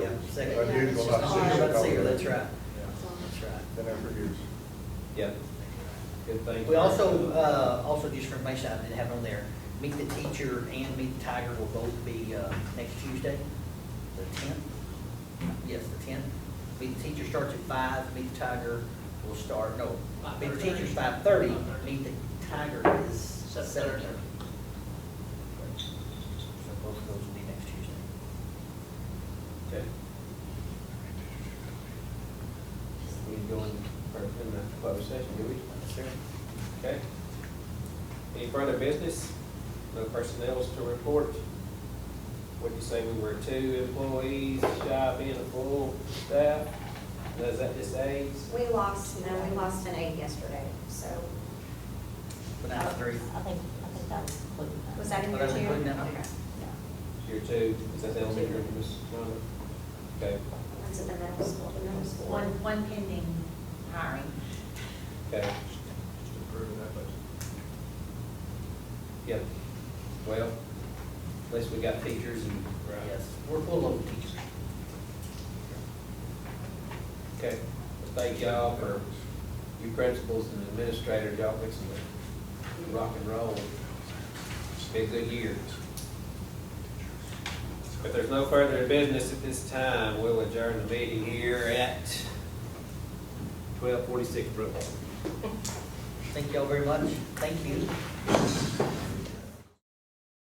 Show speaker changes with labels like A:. A: second.
B: I did go last year.
A: Oh, Let's see, that's right, that's
B: Then I forget.
C: Yep. Good thing.
A: right. We also, uh, also just for information, I didn't have it on there, Meet the Teacher and Meet the Tiger will both be, uh, next Tuesday, the tenth. Yes, the tenth. Meet the Teacher starts at five, Meet the Tiger will start, no, Meet the
D: 5:30.
A: Teacher's five thirty,
D: 5:30.
A: Meet the Tiger is
D: Seven
A: seven
D: thirty.
A: thirty. So both of those will be next Tuesday.
C: Okay. We go in, or in the closed session, do we? Okay. Any further business? No personnel's to report. What'd you say, we were two employees, shy of being a full staff? Does that just aids?
E: We lost, no, we lost an eight yesterday, so,
A: But now it's three.
F: I think, I think that was included. in that.
E: was that in
A: Well,
E: your
A: Oh, that
E: two?
A: was included in that.
E: Okay.
F: Yeah.
C: Your two, is that the elementary, Miss Johnson? Okay,
E: One's at the middle school, the middle school.
D: One, one pending hiring.
C: okay,
B: Just approving that budget.
C: yep. Well, at least we got teachers and.
A: Yes, we're full of teachers.
C: Okay, thank y'all for, you principals and administrators, y'all fixing to rock and roll. It's been a good year. If there's no further business at this time, we'll adjourn the meeting here at twelve forty-six Brookline.
A: Thank y'all very much. Thank you.